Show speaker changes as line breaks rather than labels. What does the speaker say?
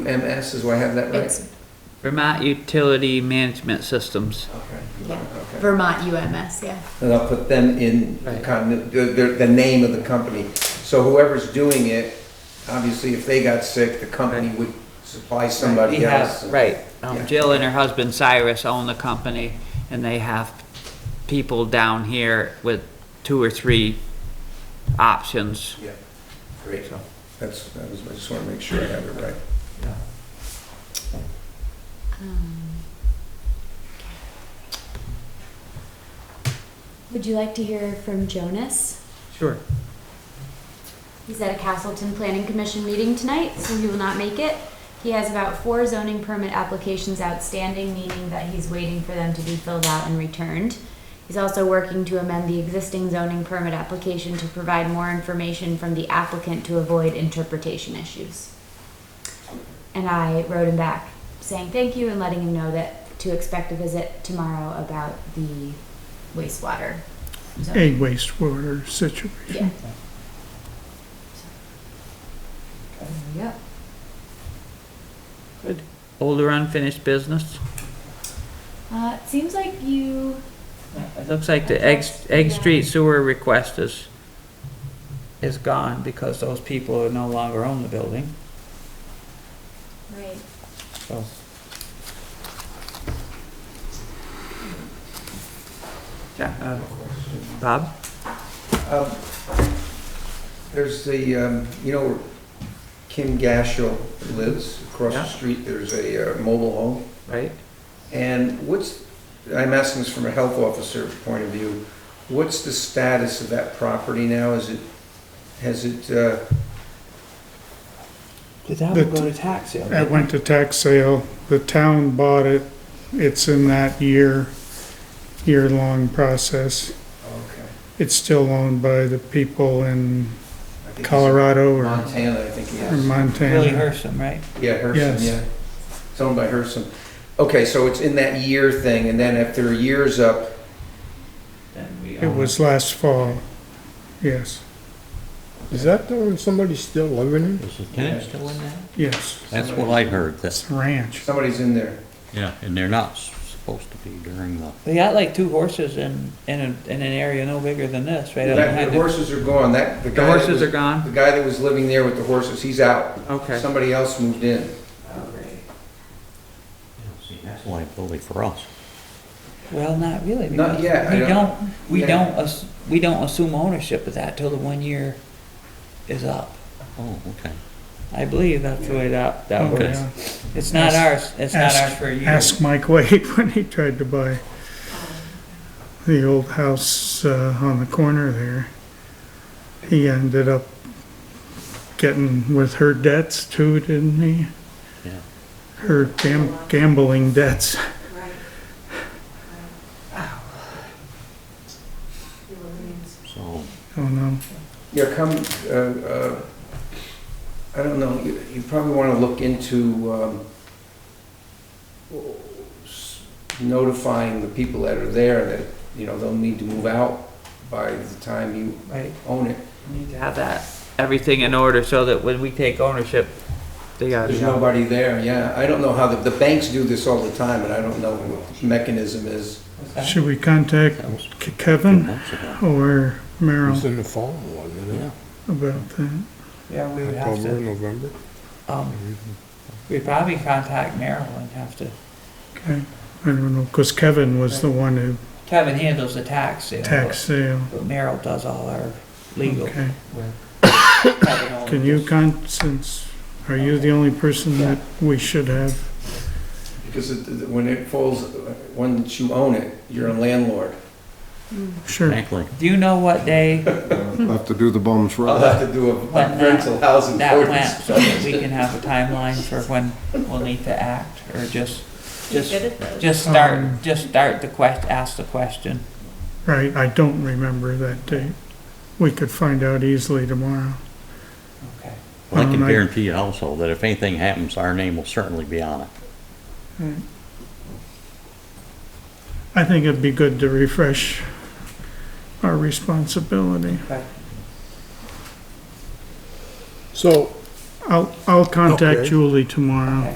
MS, is where I have that right?
It's
Vermont Utility Management Systems.
Okay.
Yeah.
Okay.
Vermont UMS, yeah.
And I'll put them in the
Right.
con- the, the, the name of the company. So whoever's doing it, obviously, if they got sick, the company would supply somebody
We have-
else.
Right. Um,
Yeah.
Jill and her husband Cyrus own the company, and they have people down here with two or three options.
Yeah, great. That's, that was, I just want to make sure I have it right.
Um, Would you like to hear from Jonas?
Sure.
He's at a Castleton Planning Commission meeting tonight, so he will not make it. He has about four zoning permit applications outstanding, meaning that he's waiting for them to be filled out and returned. He's also working to amend the existing zoning permit application to provide more information from the applicant to avoid interpretation issues. And I wrote him back saying thank you and letting him know that to expect a visit tomorrow about the wastewater. zoning.
a wastewater situation.
Yeah. Yep.
Older unfinished business.
Uh, it seems like you.
It looks like the Egg, Egg
Yeah.
Street sewer request is, is gone because those people are no longer own the building,
Right.
so. Yeah, uh, Bob?
Um, There's the, um, you know, where Kim Gashel lives across the
Yeah.
street. There's a uh, mobile home.
Right?
And what's, I'm asking this from a health officer point of view, what's the status of that property now? Is it, has it, uh,
Did that
one go
to tax sale?
It went to tax sale, the town bought it, it's in that year, year-long process.
okay.
It's still owned by the people in
I think it's
Colorado or
Montana, I think,
or
yes.
Willie
Montana.
Hersham, right?
Yeah, Herson,
Yes.
yeah. It's owned by Herson. Okay, so it's in that year thing, and then if their year's up,
It was last fall, yes,
Is that the one somebody's still living in?
Isn't it?
Still in that?
yes,
That's what I heard, that,
it's a ranch.
somebody's in there.
yeah, and they're not supposed to be during the,
They got like two horses in, in, a- in an area no bigger than this, right?
That- The horses are gone, that, the
The
guy. that
horses
was-
are gone?
The guy that was living there with the horses, he's out.
Okay.
Somebody else moved in.
see, that's liability for us.
Well, not really.
Not
because
yet, I
We
don't-
don't, we
Yeah.
don't, ass- we don't assume ownership of that till the one year is up.
Oh, okay.
I believe that's the way that, that
Oh,
works.
yeah.
It's not ours, it's not
Ask-
ours for a year.
Ask Mike Wade when he tried to buy the old house uh, on the corner there. He ended up getting with her debts too, didn't he?
Yeah.
Her gam- gambling debts.
So,
Oh no.
Yeah, come, uh, uh, I don't know, you you probably want to look into um, s- notifying the people that are there that, you know, they'll need to move out by the time you
Right,
own it.
we need to have that, everything in order so that when we take ownership, they gotta
There's
be out.
nobody there, yeah. I don't know how, the the banks do this all the time, and I don't know what mechanism is.
Should we contact
that was
K-
two
Kevin
months ago.
or
It was
Merrill
in the fall, wasn't
Yeah.
it?
about that?
Yeah, we would have
October,
to,
November?
um, we'd probably contact Merrill and have to,
Okay. I don't know, because Kevin was the one who
Kevin handles the tax sale. but-
tax sale.
But Merrill does all our legal.
Okay.
Kevin only
Can you
does-
con, since, are you the only person that we should have
Because it- it- when it falls, uh, once you own it, you're a landlord.
Sure.
Exactly.
Do you know what day
Have to do the bums
I'll
right.
have to do a
When that-
rental housing
that went
ordinance.
so that we can have a timeline for when we'll need to act or just, just, just
Um,
start, just start the quest, ask the question.
Right, I don't remember that date. We could find out easily tomorrow.
Okay.
Well, I can
Um, I-
guarantee you also that if anything happens, our name will certainly be on it.
I think it'd be good to refresh our responsibility.
So
I'll, I'll contact
Okay.
Julie tomorrow.